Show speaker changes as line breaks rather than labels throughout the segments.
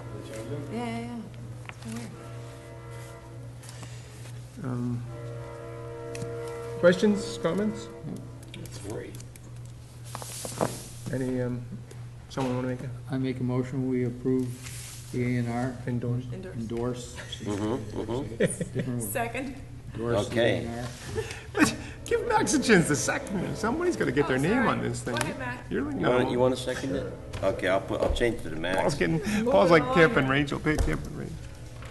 Yeah, yeah, yeah. It's been weird.
Um, Questions, comments?
It's free.
Any, um, someone want to make
I make a motion, we approve the A and R,
a endorse?
Indoors.
endorse. Different word.
Second.
Endorse the
Okay.
A&R.
Give Max a chance to second. Somebody's got to get
Oh,
their name
sorry.
on this thing.
Go ahead, Max.
You're like,
You want, you
no.
want to second it? Okay, I'll put, I'll change it to the
Paul's
max.
getting, Paul's like
along.
Camp and Rachel, pick Camp and Rachel.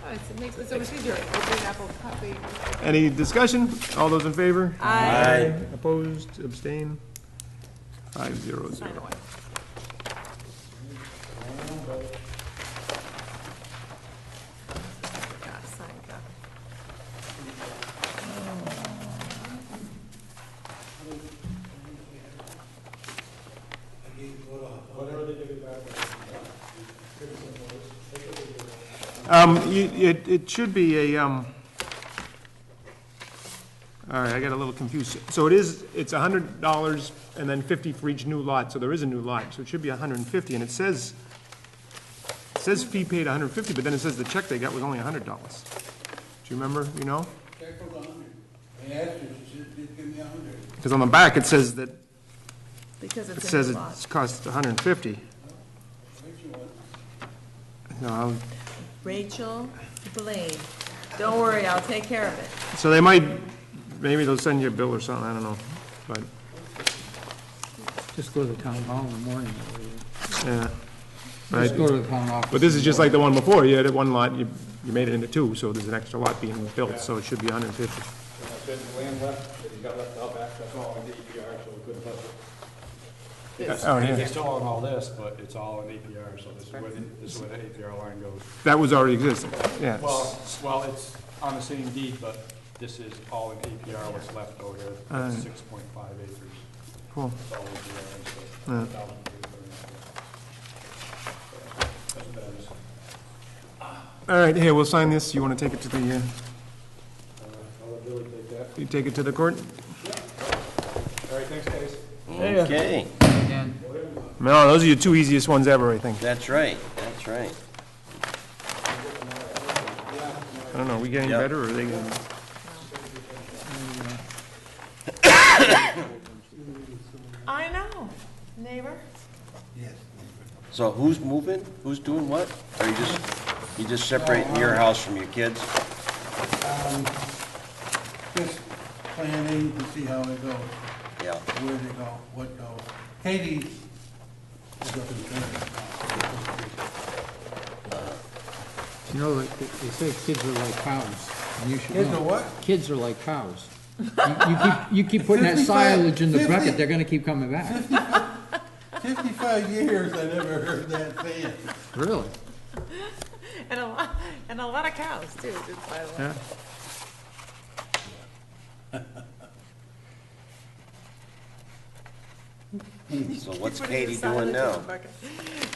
Oh, it's- it makes it so much easier. Open apple copy.
Any discussion? All those in favor?
I
Aye.
Opposed, abstain? Five zero
Sign
zero.
away. Yeah, sign that.
Um, you, it, it should be a, um, all right, I got a little confused. So it is, it's a hundred dollars and then fifty for each new lot, so there is a new lot, so it should be a hundred and fifty, and it says, it says fee paid a hundred and fifty, but then it says the check they got was only a hundred dollars. Do you remember, you know?
Check for the hundred. I asked her, she said, just give me a hundred.
Because on the back, it says that,
Because
it
it's in
says
the lot.
it's cost a hundred and fifty. No, I'll-
Rachel Blaine. Don't worry, I'll take care of it.
So they might, maybe they'll send you a bill or something, I don't know, but,
Just go to the town hall in the morning. that way.
yeah.
Just
Right.
go to the town office.
But this is just like the one before, you had one lot, you, you made it into two, so there's an extra lot being built, so it should be hundred and fifty. Oh, yeah,
It's still on all this, but it's all in APR, so this is where, the- this is where the APR line goes.
that was already existing, yeah.
Well, s- well, it's on the same deed, but this is all in APR, what's left over here,
Uh.
That's six point five acres.
Cool.
It's all APR, so. 1,300. That's what that is.
All right, here, we'll sign this, you wanna take it to the, uh,
I'll let Billy take that.
you take it to the court?
All right, thanks, guys.
Okay,
Again.
No, those are your two easiest ones ever, I think.
that's right, that's right.
I don't know, are we getting
Yeah.
better, or are they getting?
I know, neighbor.
So who's moving? Who's doing what? Or you just, you just separating your house from your kids?
Ah, Just planning to see how it goes,
Yeah,
where they go, what goes. Katie is up in Trinidad.
You know, like, they they say kids are like cows. and you should
Kids
know.
are what?
Kids are like cows. You- You keep, you keep putting that silage in the
55,
bucket, they're gonna keep coming back.
Fifty-five years, I never heard that said.
Really?
And a lot, and a lot of cows too, just by the way.
so what's
Put it in
Katie
the side of the chicken
doing now?
bucket.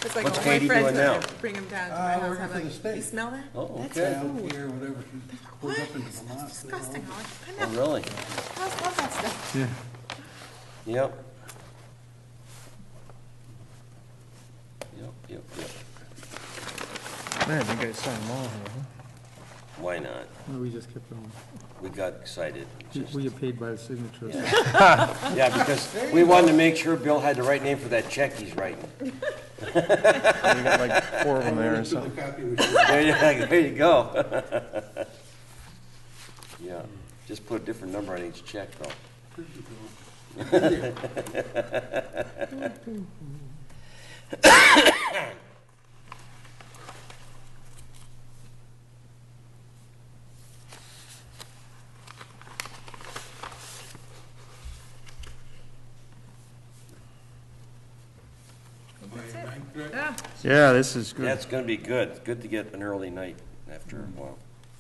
It's like
What's
all my
Katie
friends
doing
that
now?
Bring them down to
Uh,
my house.
working
I'm
for the
like,
state.
you smell that?
Oh,
That's
okay.
Down here, whatever she
What?
goes up in
It's
Vermont.
Disgusting. I'm like, I
Oh,
know.
really?
Cows love that stuff.
Yeah.
Yep. Yep, yep, yep.
Man, you guys signed them all, here, huh?
Why not?
No, we just kept going.
We got excited. Just-
We get paid by the signature.
Yeah, because we wanted to make sure Bill had the right name for that check he's writing.
You got like four of them there or
So
something.
the copy was.
There you, there you go. Yeah, just put a different number on each check, though.
That's it.
I'm correct.
Yeah.
Yeah, this is good.
That's gonna be good. It's Good to get an early night after a while.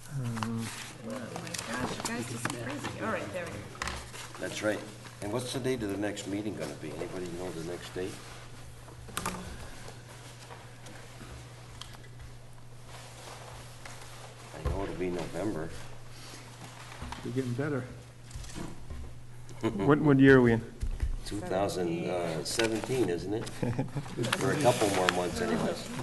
Oh my gosh, you guys just crazy. All right, there we go.
That's right. And what's the date of the next meeting gonna be? Anybody know the next date? I know it'll be November.
We're getting better.
What, what year are we in?
uh, 2017, isn't it? For a couple more months anyways.